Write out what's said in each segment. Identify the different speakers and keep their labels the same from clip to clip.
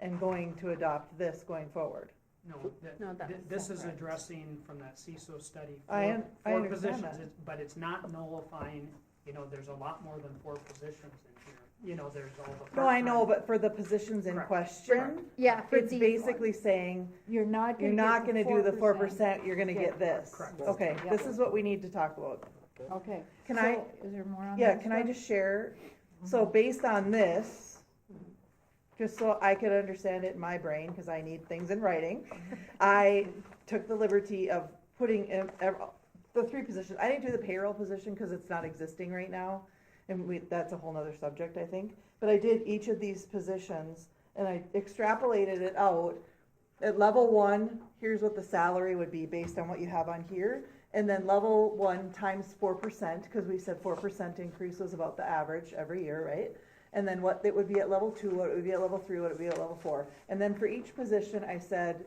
Speaker 1: and going to adopt this going forward.
Speaker 2: No, th-
Speaker 3: No, that
Speaker 2: th-
Speaker 3: was
Speaker 2: this is
Speaker 3: separate.
Speaker 2: addressing from that CISO study.
Speaker 1: I
Speaker 2: four-
Speaker 1: un- I
Speaker 2: four
Speaker 1: understand
Speaker 2: positions,
Speaker 1: that.
Speaker 2: it's- But it's not nullifying, you know, there's a lot more than four positions in here. You know, there's all the.
Speaker 1: No, I know,
Speaker 2: part-time-
Speaker 1: but for the positions in
Speaker 2: Correct.
Speaker 1: question,
Speaker 3: Yeah, for
Speaker 1: it's
Speaker 3: these
Speaker 1: basically
Speaker 3: ones.
Speaker 1: saying,
Speaker 3: You're not
Speaker 1: you're
Speaker 3: gonna
Speaker 1: not
Speaker 3: get
Speaker 1: gonna
Speaker 3: the
Speaker 1: do the four
Speaker 3: 4%.
Speaker 1: percent, you're gonna
Speaker 3: Yeah.
Speaker 1: get this.
Speaker 2: Correct.
Speaker 1: Okay,
Speaker 3: Yeah.
Speaker 1: this is what we need to talk about.
Speaker 3: Okay.
Speaker 1: Can
Speaker 3: So,
Speaker 1: I,
Speaker 3: Is there more on Uh-huh. this?
Speaker 1: yeah, can I
Speaker 3: one?
Speaker 1: just share? So based on this, just so I could understand it in my brain, cause I need things in writing, I took the liberty of putting in, ev- the three positions, I didn't do the payroll position, cause it's not existing right now. And we, that's a whole nother subject, I think, but I did each of these positions and I extrapolated it out. At level one, here's what the salary would be based on what you have on here. And then level one times four percent, cause we said four percent increase was about the average every year, right? And then what it would be at level two, what it would be at level three, what it would be at level four. And then for each position, I said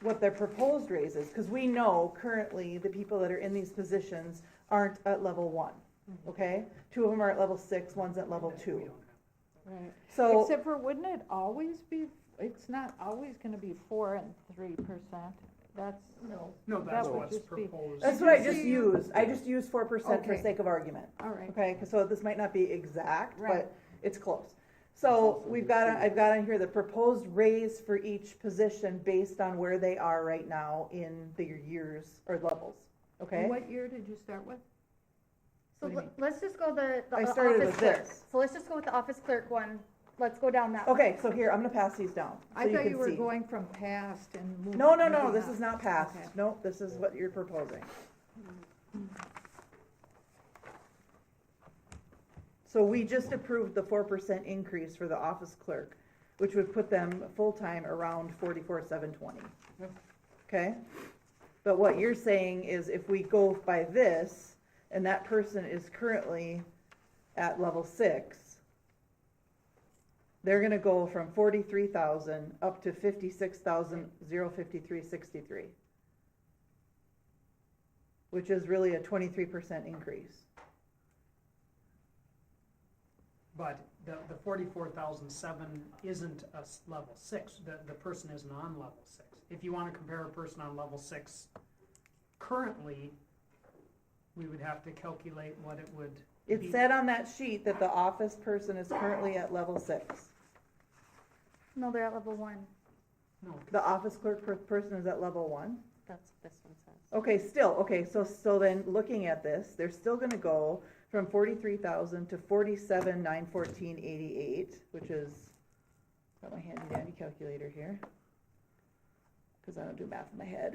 Speaker 1: what their proposed raise is, cause we know currently the people that are in these positions aren't at level one,
Speaker 3: Mm-hmm.
Speaker 1: okay? Two of them are at level six, one's at level
Speaker 2: that we
Speaker 1: two.
Speaker 2: don't have.
Speaker 3: Right.
Speaker 1: So.
Speaker 3: Except for, wouldn't it always be, it's not always gonna be four and three percent, that's. No.
Speaker 2: No, that's
Speaker 3: would
Speaker 2: what's
Speaker 3: just be-
Speaker 2: proposed.
Speaker 1: That's what I just used, I just used four percent for
Speaker 3: Okay.
Speaker 1: sake of argument,
Speaker 3: All right,
Speaker 1: okay, 'Cause so this might not be exact,
Speaker 3: Right.
Speaker 1: but it's close. So we've got, on- I've got on here the proposed raise for each position based on where they are right now in their years or levels,
Speaker 3: And
Speaker 1: okay?
Speaker 3: what year did you start with? What
Speaker 4: So
Speaker 3: do you
Speaker 4: le- let's just go the, the
Speaker 1: I
Speaker 4: o-
Speaker 1: started
Speaker 4: office
Speaker 1: with
Speaker 4: clerk.
Speaker 1: this.
Speaker 4: So let's just go with the office clerk one. Let's go down that.
Speaker 1: Okay, so here, I'm gonna pass these down, so
Speaker 3: I
Speaker 1: you
Speaker 3: thought you
Speaker 1: can
Speaker 3: were
Speaker 1: see.
Speaker 3: going from past and moving.
Speaker 1: No, no, no,
Speaker 3: moving
Speaker 1: this
Speaker 3: up.
Speaker 1: is not passed,
Speaker 3: Okay.
Speaker 1: no, this is what you're proposing. So we just approved the four percent increase for the office clerk, which would put them full-time around forty-four, seven twenty.
Speaker 2: Yep.
Speaker 1: Okay? But what you're saying is if we go by this, and that person is currently at level six, they're gonna go from forty-three thousand up to fifty-six thousand, zero fifty-three, sixty-three. Which is really a twenty-three percent increase.
Speaker 2: But the, the forty-four thousand seven isn't a s- level six, the, the person isn't on level six. If you wanna compare a person on level six currently, we would have to calculate what it would be.
Speaker 1: It said on that sheet that the office person is currently at level six.
Speaker 4: No, they're at level one.
Speaker 2: No,
Speaker 1: The office clerk per- person is at level one?
Speaker 5: That's what this one says.
Speaker 1: Okay, still, okay, so, so then, looking at this, they're still gonna go from forty-three thousand to forty-seven, nine fourteen, eighty-eight, which is, got my handy dandy calculator here. Cause I don't do math in my head.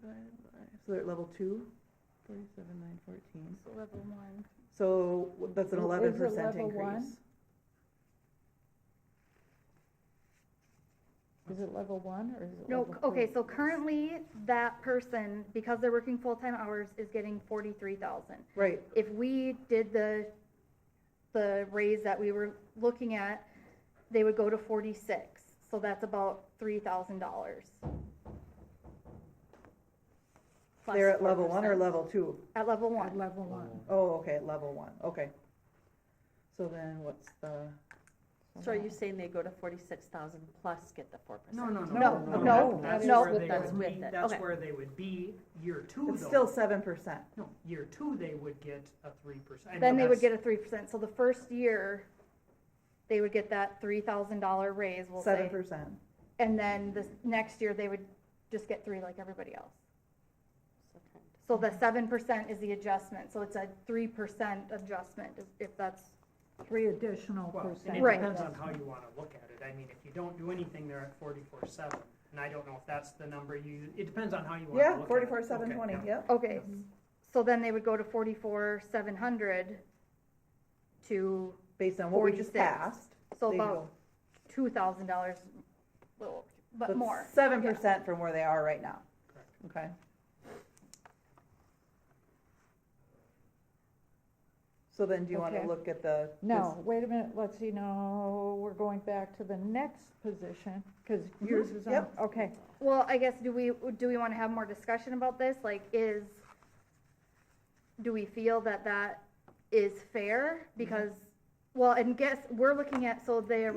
Speaker 1: Divided by- So they're at level two, forty-seven, nine fourteen,
Speaker 4: So level one.
Speaker 1: so that's an
Speaker 3: Is it
Speaker 1: eleven percent
Speaker 3: level one?
Speaker 1: increase.
Speaker 3: Is it level one or is it
Speaker 4: No,
Speaker 3: level
Speaker 4: c- okay,
Speaker 3: three?
Speaker 4: so currently that person, because they're working full-time hours, is getting forty-three thousand.
Speaker 1: Right,
Speaker 4: If we did the, the raise that we were looking at, they would go to forty-six. So that's about three thousand dollars.
Speaker 1: they're at level one or level two?
Speaker 4: At level
Speaker 3: At
Speaker 4: one.
Speaker 3: Level one.
Speaker 1: Oh, okay, level one, okay. So then what's the,
Speaker 5: So are you saying they go to forty-six thousand plus get the four percent?
Speaker 2: no, no, no.
Speaker 3: No,
Speaker 1: no,
Speaker 2: That's
Speaker 3: no,
Speaker 2: where they
Speaker 5: that's
Speaker 2: would
Speaker 5: with
Speaker 2: be-
Speaker 5: it,
Speaker 2: That's
Speaker 5: okay.
Speaker 2: where they would be, year two though.
Speaker 1: it's still seven percent.
Speaker 2: No, year two, they would get a three percent.
Speaker 4: Then they would get a three percent, so the first year, they would get that three thousand dollar raise, we'll
Speaker 1: Seven
Speaker 4: say.
Speaker 1: percent.
Speaker 4: And then the next year, they would just get three like everybody else. So
Speaker 1: Mm-hmm.
Speaker 4: the seven percent is the adjustment, so it's a three percent adjustment, if- if that's,
Speaker 3: Three additional
Speaker 2: Well, and
Speaker 3: percent.
Speaker 2: it
Speaker 4: Right.
Speaker 2: depends on how you wanna look at it. I mean, if you don't do anything, they're at forty-four seven. And I don't know if that's the number you, it depends on how you wanna look at it.
Speaker 1: Yeah, forty-four, seven
Speaker 2: Okay,
Speaker 1: twenty,
Speaker 2: yeah.
Speaker 1: yep.
Speaker 4: okay. So then they would go to forty-four, seven hundred to,
Speaker 1: Based on what we just
Speaker 4: 46.
Speaker 1: passed.
Speaker 4: so about two thousand dollars, little, but more.
Speaker 1: Seven percent from where they are right now.
Speaker 2: Correct.
Speaker 1: Okay. So then do you wanna
Speaker 3: Okay.
Speaker 1: look at the?
Speaker 3: No, wait a minute, let's see, no, we're going back to the next position, because yours is
Speaker 1: Mm-hmm.
Speaker 3: on,
Speaker 1: yep.
Speaker 3: okay.
Speaker 4: Well, I guess, do we, do we wanna have more discussion about this? Like, is, do we feel
Speaker 1: Mm-hmm.
Speaker 4: that that is fair? Because, well, and guess, we're looking at, so the